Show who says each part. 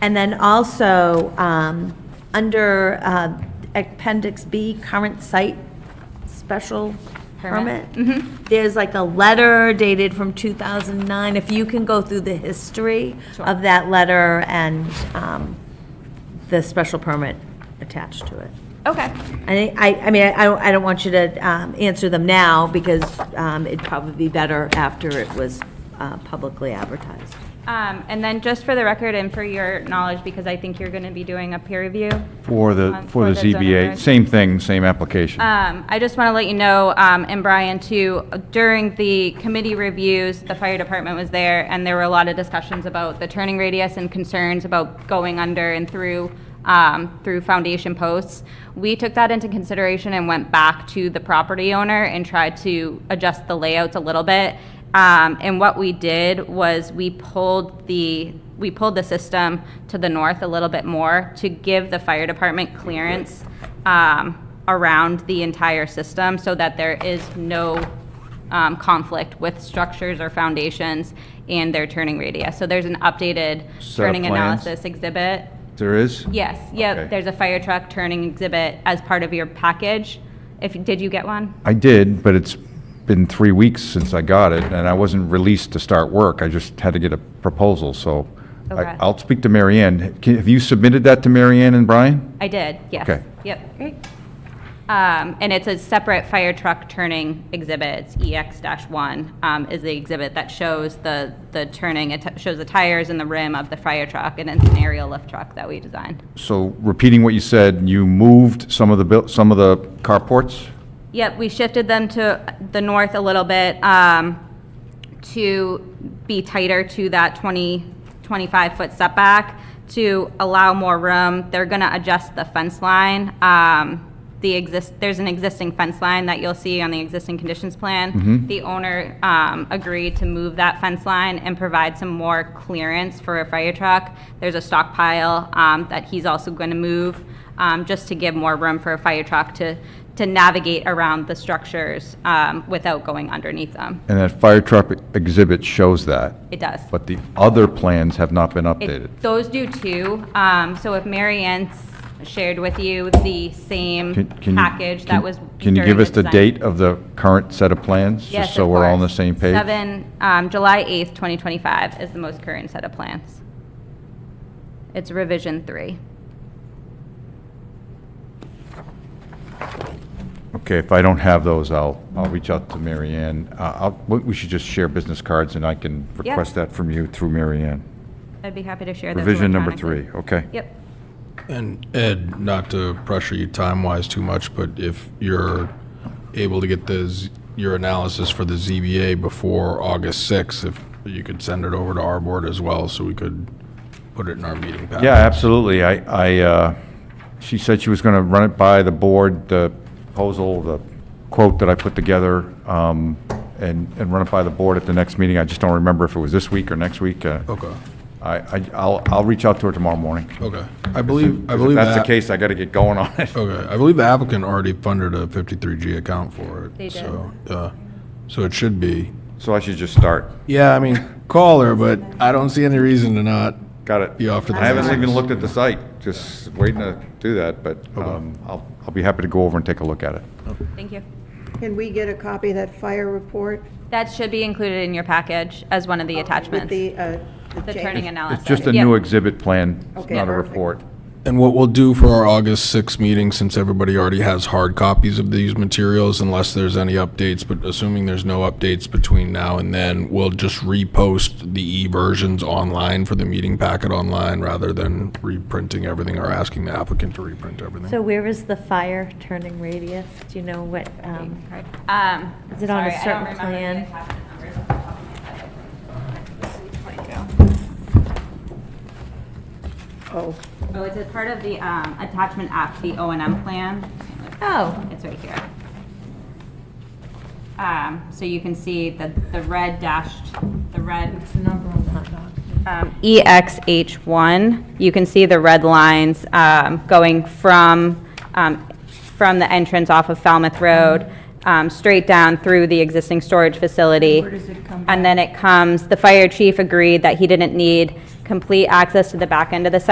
Speaker 1: And then also, um, under uh, Appendix B, current site special permit.
Speaker 2: Permit.
Speaker 1: There's like a letter dated from 2009. If you can go through the history of that letter and um, the special permit attached to it.
Speaker 2: Okay,
Speaker 1: I, think- I I mean, I don't, I don't want you to um, answer them now, because um, it'd probably be better after it was uh, publicly advertised.
Speaker 2: um, and then just for the record and for your knowledge, because I think you're gonna be doing a peer review,
Speaker 3: For the,
Speaker 2: Um,
Speaker 3: for
Speaker 2: for
Speaker 3: the
Speaker 2: the zoning
Speaker 3: ZBA,
Speaker 2: reg.
Speaker 3: same thing, same application.
Speaker 2: Um, I just want to let you know, um, and Brian too, during the committee reviews, the fire department was there, and there were a lot of discussions about the turning radius and concerns about going under and through, um, through foundation posts. We took that into consideration and went back to the property owner and tried to adjust the layouts a little bit. Um, and what we did was we pulled the, we pulled the system to the north a little bit more to give the fire department clearance um, around the entire system so that there is no um, conflict with structures or foundations and their turning radius. So there's an updated
Speaker 3: Set of
Speaker 2: turning
Speaker 3: plans?
Speaker 2: analysis exhibit.
Speaker 3: There is?
Speaker 2: Yes, yep,
Speaker 3: Okay.
Speaker 2: there's a fire truck turning exhibit as part of your package. If, did you get one?
Speaker 3: I did, but it's been three weeks since I got it, and I wasn't released to start work. I just had to get a proposal, so
Speaker 2: Okay.
Speaker 3: I- I'll speak to Mary Ann. Can- Have you submitted that to Mary Ann and Brian?
Speaker 2: I did, yes.
Speaker 3: Okay.
Speaker 2: Yep. Um, And it's a separate fire truck turning E exhibit, It's EX-1 um, is the exhibit that shows the, the turning, it t- shows the tires and the rim of the fire truck, and it's an aerial lift truck that we designed.
Speaker 3: So repeating what you said, you moved some of the, buil- some of the carports?
Speaker 2: Yep, we shifted them to the north a little bit um, to be tighter to that 20, 25-foot setback to allow more room. They're going to adjust the fence line. Um, The exist, there's an existing fence line that you'll see on the existing conditions plan. The owner um, agreed to move that fence line and provide some more clearance for a fire truck. There's a stockpile um, that he's also going to move um, just to give more room for a fire truck to, to navigate around the structures um, without going underneath them.
Speaker 3: And that fire truck exhibit shows that,
Speaker 2: It does.
Speaker 3: but the other plans have not been
Speaker 2: It-
Speaker 3: updated.
Speaker 2: Those do too. Um, So if Mary Ann's shared with you the
Speaker 3: Can-
Speaker 2: same
Speaker 3: can you-
Speaker 2: package that
Speaker 3: can-
Speaker 2: was
Speaker 3: Can you
Speaker 2: during
Speaker 3: give us the
Speaker 2: design-
Speaker 3: date of the current set of plans?
Speaker 2: Yes,
Speaker 3: Just so
Speaker 2: of
Speaker 3: we're all on the
Speaker 2: course.
Speaker 3: same page?
Speaker 2: Seven, um, July 8th, 2025 is the most current set of plans. It's revision three.
Speaker 3: Okay, if I don't have those, I'll, I'll reach out to Mary Ann. Uh, I'll- we- We should just share business cards, and I can
Speaker 2: Yeah.
Speaker 3: request that from you through Mary Ann.
Speaker 2: I'd be happy to share those
Speaker 3: Revision number
Speaker 2: electronically.
Speaker 3: three, okay?
Speaker 2: Yep.
Speaker 4: And Ed, not to pressure you time-wise too much, but if you're able to get the, Z- your analysis for the ZBA before August 6th, if you could send it over to our board as well, so we could put it in our meeting packet.
Speaker 3: Yeah, absolutely. I, I, uh, she said she was going to run it by the board, the proposal, the quote that I put together, um, and, and run it by the board at the next meeting. I just don't remember if it was this week or next week. uh,
Speaker 4: Okay,
Speaker 3: I, I- I'll, I'll reach out to her tomorrow morning.
Speaker 4: okay. I believe, I
Speaker 3: 'Cause
Speaker 4: believe
Speaker 3: If that's
Speaker 4: that.
Speaker 3: the case, I got to get going on it.
Speaker 4: Okay, I believe the applicant already funded a 53G account for it.
Speaker 2: They did.
Speaker 4: So, uh, so it should be.
Speaker 3: So I should just start.
Speaker 4: Yeah, I mean, call her, but I don't see any reason to not.
Speaker 3: Got it.
Speaker 4: Be off to the
Speaker 3: I haven't
Speaker 4: races.
Speaker 3: even looked at the site, just waiting to do that, but
Speaker 4: Oh,
Speaker 3: um, I'll, I'll be happy to go over and take a look at it.
Speaker 2: Thank you.
Speaker 5: Can we get a copy of that fire report
Speaker 2: That should be included in your package as one of the
Speaker 5: with
Speaker 2: attachments, the
Speaker 5: the, uh, the
Speaker 2: turning
Speaker 5: change?
Speaker 2: analysis.
Speaker 3: It's just a
Speaker 2: Yep.
Speaker 3: new exhibit plan, it's
Speaker 5: Okay,
Speaker 3: not a
Speaker 5: perfect.
Speaker 3: report.
Speaker 4: And what we'll do for our August 6th meeting, since everybody already has hard copies of these materials, unless there's any updates, but assuming there's no updates between now and then, we'll just repost the e-versions online for the meeting packet online rather than reprinting everything or asking the applicant to reprint everything.
Speaker 1: So where is the fire turning radius? Do you know what, um,
Speaker 2: Um,
Speaker 1: Is it on a
Speaker 2: sorry, I don't
Speaker 1: certain
Speaker 2: remember the
Speaker 1: plan?
Speaker 2: attachment numbers off the top of my head.
Speaker 5: Oh,
Speaker 2: Oh, it's a part of the um, attachment F, the O and M plan.
Speaker 1: Oh.
Speaker 2: It's right here. Um, So you can see the, the red dashed, the red. Um, EXH1, you can see the red lines um, going from, um, from the entrance off of Falmouth Road, um, straight down through the existing storage facility. And then it comes, the fire chief agreed that he didn't need complete access to the back end of the site